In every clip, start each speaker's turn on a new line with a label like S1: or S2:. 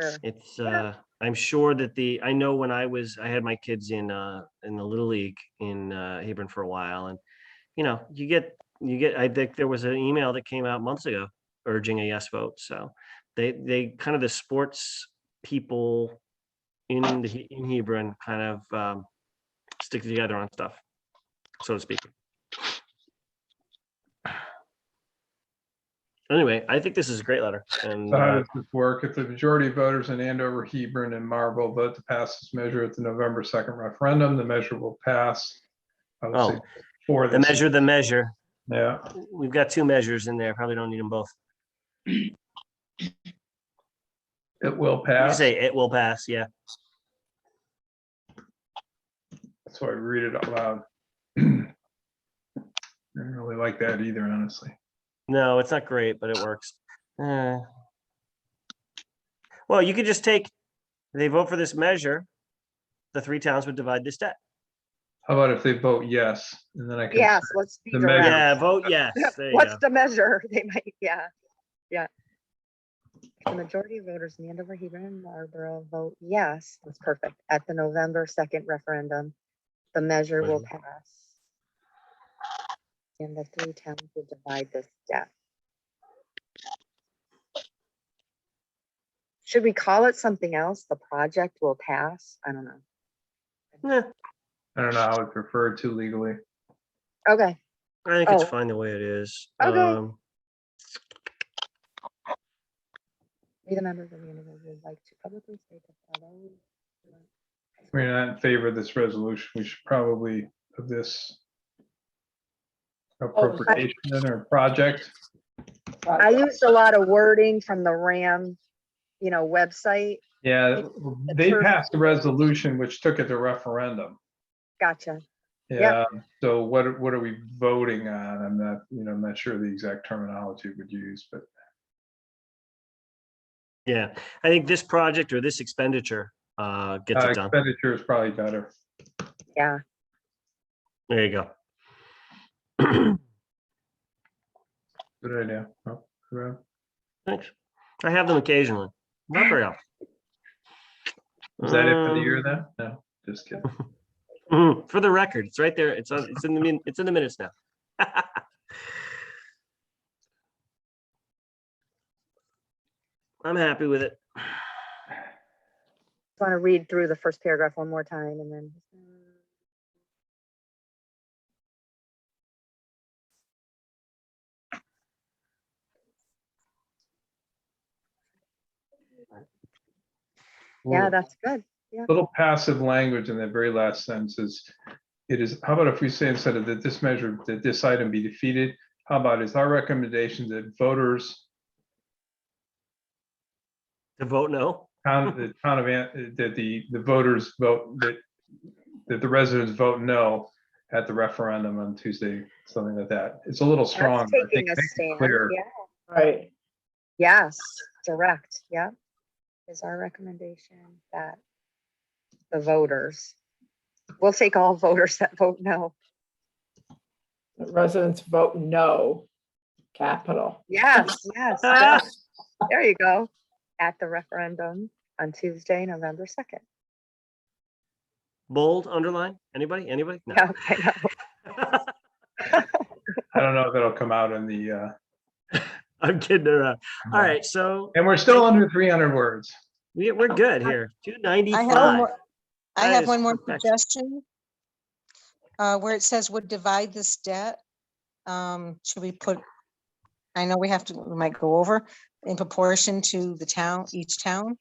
S1: Sure.
S2: It's, uh, I'm sure that the, I know when I was, I had my kids in, uh, in the Little League in, uh, Hebron for a while and, you know, you get, you get, I think there was an email that came out months ago urging a yes vote. So they, they kind of the sports people in the, He- in Hebron kind of, um, stick together on stuff, so to speak. Anyway, I think this is a great letter and,
S3: So how
S2: uh,
S3: does this work? If the majority of voters in Andover, Hebron, and Marlborough vote to pass this measure at the November 2nd referendum, the measure will pass. I would say,
S2: Oh.
S3: For
S2: the
S3: this.
S2: measure, the measure.
S3: Yeah,
S2: We've got two measures in there. Probably don't need them both.
S3: it will
S2: You
S3: pass.
S2: say it will pass, yeah.
S3: That's why I read it out loud. I didn't really like that either, honestly.
S2: No, it's not great, but it works. Uh, Well, you could just take, they vote for this measure, the three towns would divide this debt.
S3: How about if they vote yes, and then I can.
S1: Yes, let's be
S3: The measure.
S1: direct.
S2: Yeah, vote yes. There you go.
S1: What's the measure? They might, yeah, yeah. If The majority of voters in Andover, Hebron, and Marlboro vote yes, that's perfect, at the November second referendum, the measure will pass. And the three towns will divide this debt. Should we call it something else? The project will pass? I don't know.
S2: Yeah,
S3: I don't know how it's referred to legally.
S1: Okay,
S2: I think it's
S1: Oh.
S2: fine the way it is.
S1: Okay.
S2: Um,
S1: we the members of the Andover would like to publicly state that although
S3: We're not in favor of this resolution. We should probably of this appropriation or project.
S1: I used a lot of wording from the RAM, you know, website.
S3: Yeah, they
S1: term-
S3: passed a resolution which took it to referendum.
S1: Gotcha.
S3: Yeah,
S1: Yeah.
S3: so what, are- what are we voting on? I'm not, you know, I'm not sure the exact terminology we'd use, but
S2: Yeah, I think this project or this expenditure uh, gets
S3: uh,
S2: it done.
S3: expenditure is probably better.
S1: Yeah.
S2: There you go.
S3: Good idea. Oh, yeah.
S2: Thanks. I have them occasionally. Not very often.
S3: Is that it for the year
S2: Um,
S3: then? No, just kidding.
S2: Mhm, For the record, it's right there. It's, on- it's in the, min- it's in the minutes now. I'm happy with it.
S1: Want to read through the first paragraph one more time and then. Yeah, that's good.
S3: Little passive language in the very last sentence is, it is, how about if we say instead of that this measure, that this item be defeated? How about is our recommendation that voters,
S2: To vote no?
S3: town, the town of, An- that the, the voters vote, that, that the residents vote no at the referendum on Tuesday, something like that. It's a little strong.
S1: That's
S3: but I think
S1: Taking a
S3: makes it
S1: stand.
S3: clear.
S1: Yeah.
S4: Right.
S1: Yes, direct. Yeah. Is our recommendation that the voters, we'll take all voters that vote no.
S4: The Residents vote no, capital.
S1: Yes, yes. yes. There you go. At the referendum on Tuesday, November 2nd.
S2: Bold, underline, anybody, anybody? No.
S1: Yeah, I know.
S3: I don't know if it'll come out in the, uh,
S2: I'm kidding around. All right, so
S3: and we're still under three hundred words.
S2: we, we're good here. Two
S5: I have one
S2: ninety-five.
S5: more, I
S2: That
S5: have
S2: is
S5: one more
S2: perfection.
S5: suggestion. Uh, where it says would divide this debt, um, should we put, I know we have to, we might go over in proportion to the town, each town.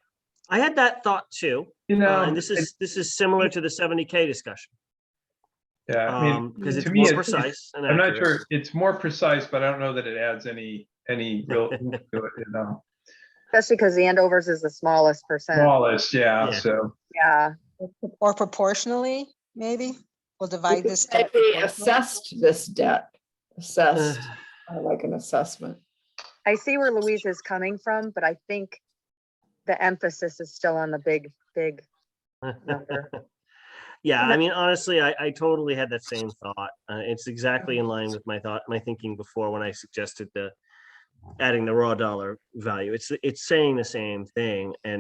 S2: I had that thought too.
S3: You
S2: uh,
S3: know,
S2: And this is, this is similar to the seventy K discussion.
S3: yeah, I mean,
S2: Um, because
S3: to
S2: it's
S3: me,
S2: more
S3: it's- it's-
S2: precise. and
S3: I'm not
S2: accurate.
S3: sure, it's more precise, but I don't know that it adds any, any real, oomph to it, you know,
S1: Especially because the Andover's is the smallest percent.
S3: flawless, yeah,
S2: Yeah.
S3: so.
S1: Yeah,
S5: Or proportionally, maybe, we'll divide this.
S4: It
S5: debt
S4: be
S5: proportionally.
S4: assessed this debt, assessed, I like an assessment.
S1: I see where Louise is coming from, but I think the emphasis is still on the big, big number.
S2: Yeah,
S1: And
S2: I mean, honestly, I, I totally had that same thought. Uh, it's exactly in line with my thought, my thinking before when I suggested the adding the raw dollar value. It's, it's saying the same thing and